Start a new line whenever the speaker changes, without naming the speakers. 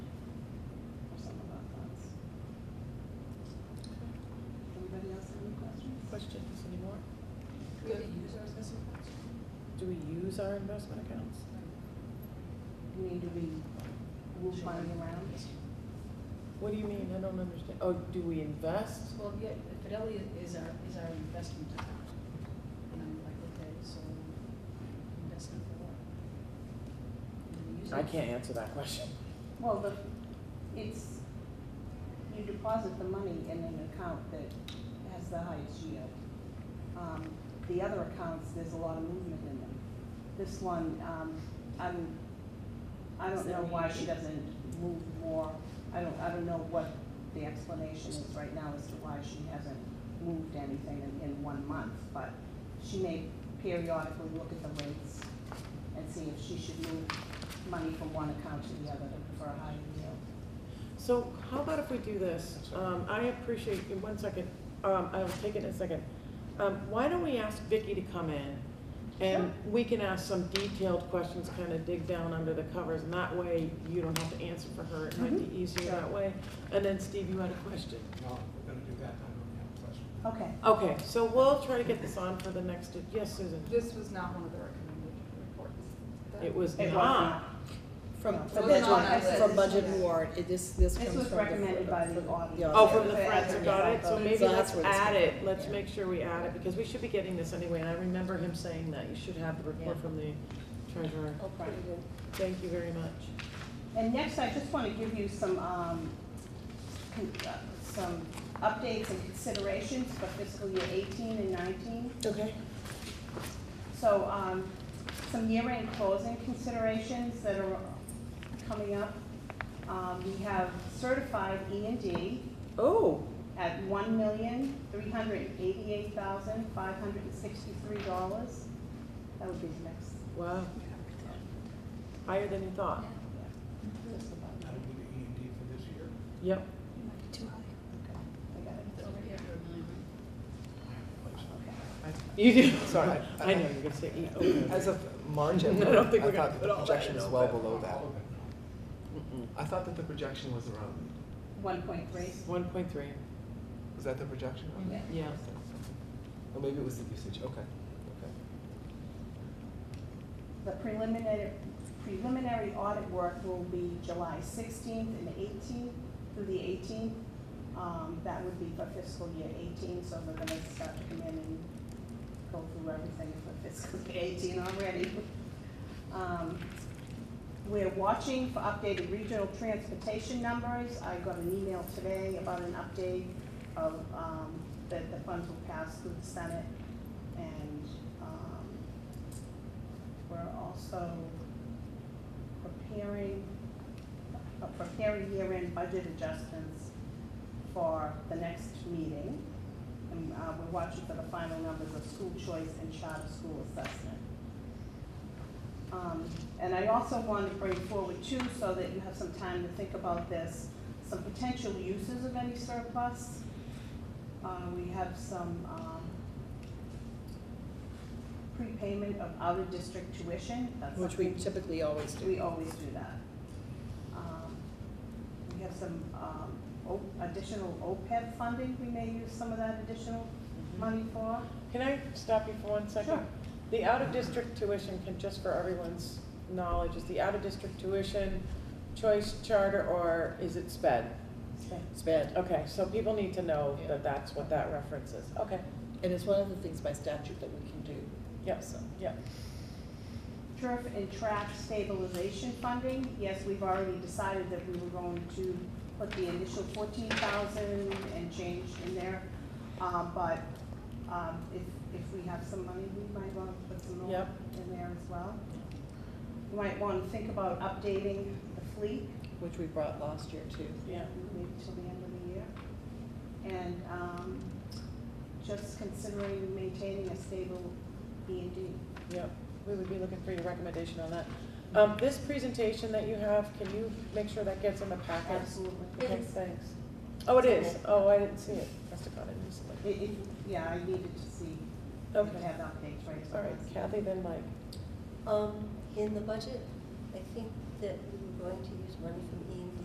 questions anymore?
Do we use our investment funds?
Do we use our investment accounts?
You mean, do we move money around?
What do you mean? I don't understand. Oh, do we invest?
Well, yeah, Fidelity is our, is our investment account. And I'm like, okay, so investment for what? And we use
I
it.
can't answer that question.
Well, the, it's, you deposit the money in an account that has the highest yield. Um, the other accounts, there's a lot of movement in them. This one, um, I'm, I don't know why she doesn't move more, I don't, I don't know what the explanation is right now as to why she hasn't moved anything in, in one month, but she may periodically look at the rates and see if she should move money from one account to the other for a higher yield.
So how about if we do this? Um, I appreciate, in one second, um, I'll take it in a second. Um, why don't we ask Vicky to come in? And we can ask some detailed questions, kind of dig down under the covers, and that way you don't have to answer for her. It might be easier
Sure.
that way. And then Steve, you had a question.
No, we're gonna do that, I don't have a question.
Okay,
Okay, so we'll try to get this on for the next, yes, Susan?
This was not one of the recommended reports. that-
It was
it was
not.
not.
From,
No,
from
it wasn't
budget,
on our
from
list.
budget and warrant, it- this, this
This
comes from
was
the.
recommended by the auditor.
Oh, from the
Yeah.
forensic audit, so
Yeah.
maybe
So that's
let's
where this
add
came
it,
from,
let's
yeah.
make sure we add it, because we should be getting this anyway, and I remember him saying that, you should have the report
Yeah.
from the treasurer.
Okay.
Thank you very much.
And next, I just want to give you some, um, con- uh, some updates and considerations for fiscal year eighteen and nineteen.
Okay.
So, um, some year-end closing considerations that are coming up. Um, we have certified E and D
Oh,
at one million, three hundred and eighty-eight thousand, five hundred and sixty-three dollars. That would be the next,
wow. Higher than you thought.
yeah, just about,
That'll be the E and D for this year.
Yep,
okay, I got it.
It's over here for a million, right?
you do, sorry,
Sorry.
I know, you're gonna say E, okay.
As of March,
I
I
don't think we're gonna
thought that
put
the
all that
projection
in
was
all
well
that.
below that.
All of it.
I thought that the projection was around,
One point three,
One point three,
was that the projection?
yeah.
yeah.
Or maybe it was the usage, okay, okay.
The preliminary, preliminary audit work will be July sixteenth and eighteenth through the eighteenth. Um, that would be for fiscal year eighteen, so they're gonna start to come in and go through everything for fiscal year eighteen already. Um, we're watching for updated regional transportation numbers. I got an email today about an update of, um, that the funds will pass through the Senate. And, um, we're also preparing, uh, preparing year-end budget adjustments for the next meeting. And, uh, we're watching for the final numbers of school choice and charter school assessment. Um, and I also wanted to bring forward too, so that you have some time to think about this, some potential uses of any surplus. Uh, we have some, um, prepayment of out-of-district tuition, that's
Which we
something-
typically always do.
we always do that. Um, We have some um, O- additional OPEB funding, we may use some of that additional money for.
Can I stop you for one second?
Sure.
The out-of-district tuition can, just for everyone's knowledge, is the out-of-district tuition choice charter, or is it sped?
Spend.
Sped, okay, so people need to know
Yeah.
that that's what that reference is, okay,
And it's one of the things by statute that we can do.
Yep.
So,
yeah.
Turf and track stabilization funding, yes, we've already decided that we were going to put the initial fourteen thousand and change in there. Um, But um, if, if we have some money, we might want to put some more
Yep.
in there as well. You Might want to think about updating the fleet
Which we brought last year too.
Yeah.
maybe till the end of the year. And um, just considering maintaining a stable B and D.
Yep, we would be looking for your recommendation on that. Um, this presentation that you have, can you make sure that gets in the packet?
Absolutely.
Okay, thanks. Oh, it is, oh, I didn't see it, must have got it recently.
It, it, yeah, I needed to see, to have
Okay,
updates right
all right, Kathy, then Mike.
Um, in the budget, I think that we were going to use money from